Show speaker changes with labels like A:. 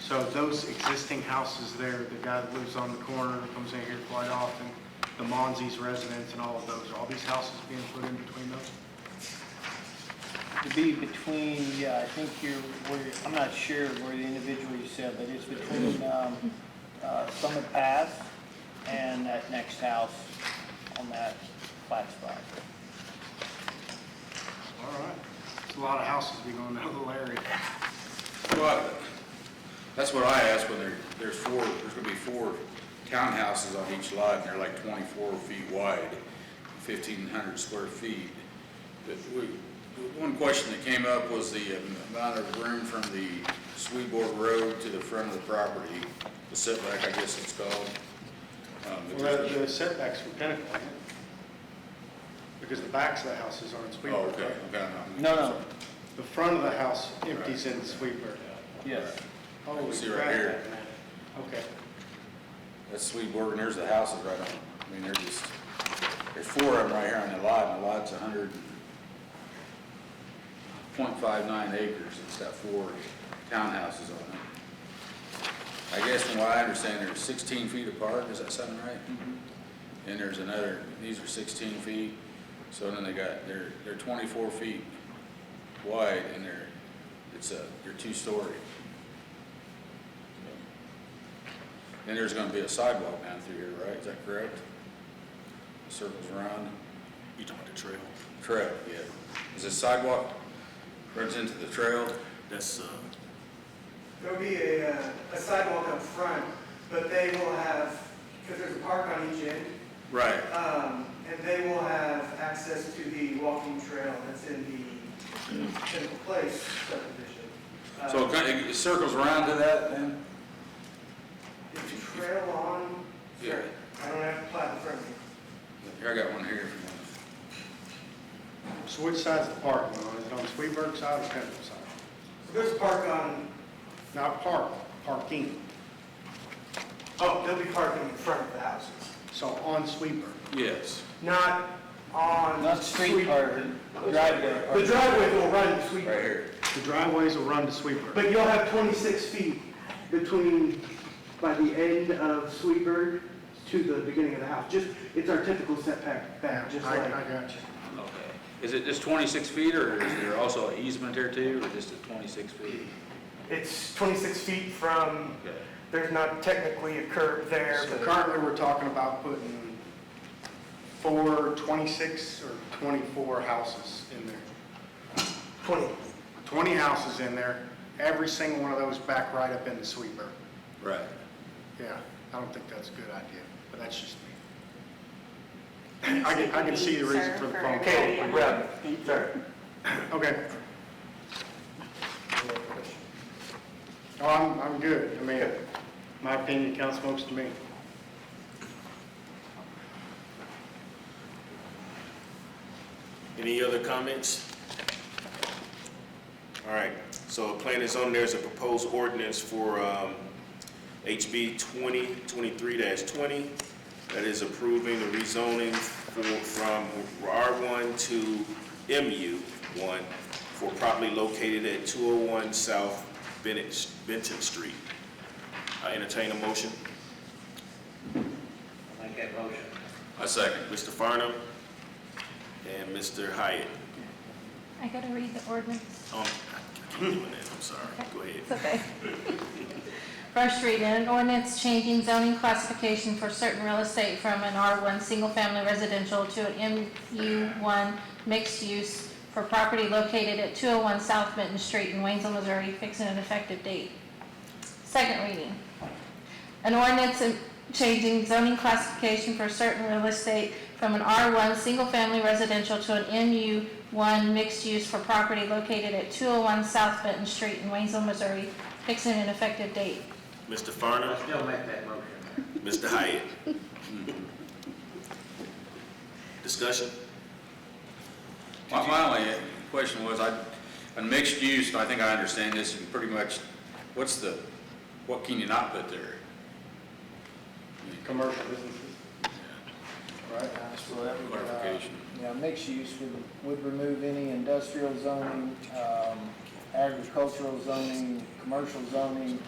A: So those existing houses there, the guy that lives on the corner, comes in here quite often, the Monzie's residents and all of those, are all these houses being put in between those?
B: To be between, yeah, I think you're, where, I'm not sure where the individual you said, but it's between, um, uh, Summit Path and that next house on that flat spot.
A: All right. It's a lot of houses being on that little area.
C: Well, that's what I asked, when there, there's four, there's gonna be four townhouses on each lot, and they're like twenty-four feet wide, fifteen hundred square feet. But we, one question that came up was the amount of room from the Sweetboard Road to the front of the property, the setback, I guess it's called. Um, but
A: Well,
C: there's-
A: the setbacks from Pinnacle, isn't it? because the backs of the houses aren't
C: Oh,
A: Sweetburg.
C: okay,
A: right?
C: okay.
B: No, no,
A: The front of the house empties into Sweetburg.
B: yes.
A: Holy
C: See right
A: crap.
C: here.
A: Okay.
C: That's Sweetburg, and there's the houses right on, I mean, they're just, there's four of them right here on the lot, and the lot's a hundred point five nine acres, it's got four townhouses on it. I guess from what I understand, they're sixteen feet apart, is that something right? And there's another, these are sixteen feet, so then they got, they're, they're twenty-four feet wide, and they're, it's a, they're two-story. And there's gonna be a sidewalk down through here, right, is that correct? Circles around,
D: You talking about the trail?
C: trail, yeah. Is this sidewalk runs into the trail?
D: That's, uh,
E: There'll be a, uh, a sidewalk up front, but they will have, because there's a park on each end,
C: Right.
E: um, and they will have access to the walking trail that's in the Central Place subdivision. Uh,
C: So it kind of, it circles around to that then?
E: Is the trail on?
C: Yeah.
E: Sure. I don't have to plat in front of me.
C: Here, I got one here.
A: So which side's the parking on? Is it on Sweetburg side or Pinnacle side?
E: So there's a park on,
A: Not park, parking.
E: oh, there'll be parking in front of the houses,
A: So on Sweetburg.
C: Yes.
E: not on.
B: Not street or driveway.
E: The
B: or-
E: driveway will run to
C: Right
E: Sweetburg.
C: here.
A: The driveways will run to Sweetburg.
E: But you'll have 26 feet between, by the end of Sweetburg to the beginning of the house. Just, it's our typical setback
A: Yeah,
E: back, just
A: I,
E: like,
A: I got you.
C: Okay. Is it just twenty-six feet or is there also an easement there too, or just at twenty-six feet?
E: it's 26 feet from,
C: Okay.
E: there's not technically a curb there,
A: So
E: but
A: currently, we're talking about putting four, 26 or 24 houses in there.
E: 20.
A: 20 houses in there, every single one of those back right up into Sweetburg.
C: Right.
A: Yeah, I don't think that's a good idea, but that's just me. I can, I can see the reason for the phone call.
E: Okay, Reb, sorry.
A: Okay. Oh, I'm, I'm good. I mean, my opinion counts most to me.
D: any other comments? All right, so plan is on, there's a proposed ordinance for um, HB 2023-20 that is approving the rezoning for- from R1 to MU1 for property located at 201 South Bennett- Benton Street. I entertain a motion.
F: Make that motion.
C: I second.
D: Mr. Farnum and Mr. Hyatt.
G: I gotta read the ordinance.
D: Um, I keep doing that, I'm sorry. Go ahead.
G: It's okay. First reading, an ordinance changing zoning classification for certain real estate from an R1 single-family residential to an MU1 mixed use for property located at 201 South Benton Street in Waynesville, Missouri, fixing an effective date. Second reading, an ordinance in- changing zoning classification for certain real estate from an R1 single-family residential to an MU1 mixed-use for property located at 201 South Benton Street in Waynesville, Missouri, fixing an effective date.
D: Mr.
F: I
D: Farnum,
F: still make that motion.
D: Mr. Hyatt. Hmm. Discussion?
C: My, my only question was, I, on mixed use, I think I understand this, and pretty much, what's the, what can you not put there?
A: Commercial businesses. Right?
B: Uh, so that would, uh,
C: Clarification.
B: Yeah, mixed use would, would remove any industrial zoning, um, agricultural zoning, commercial zoning,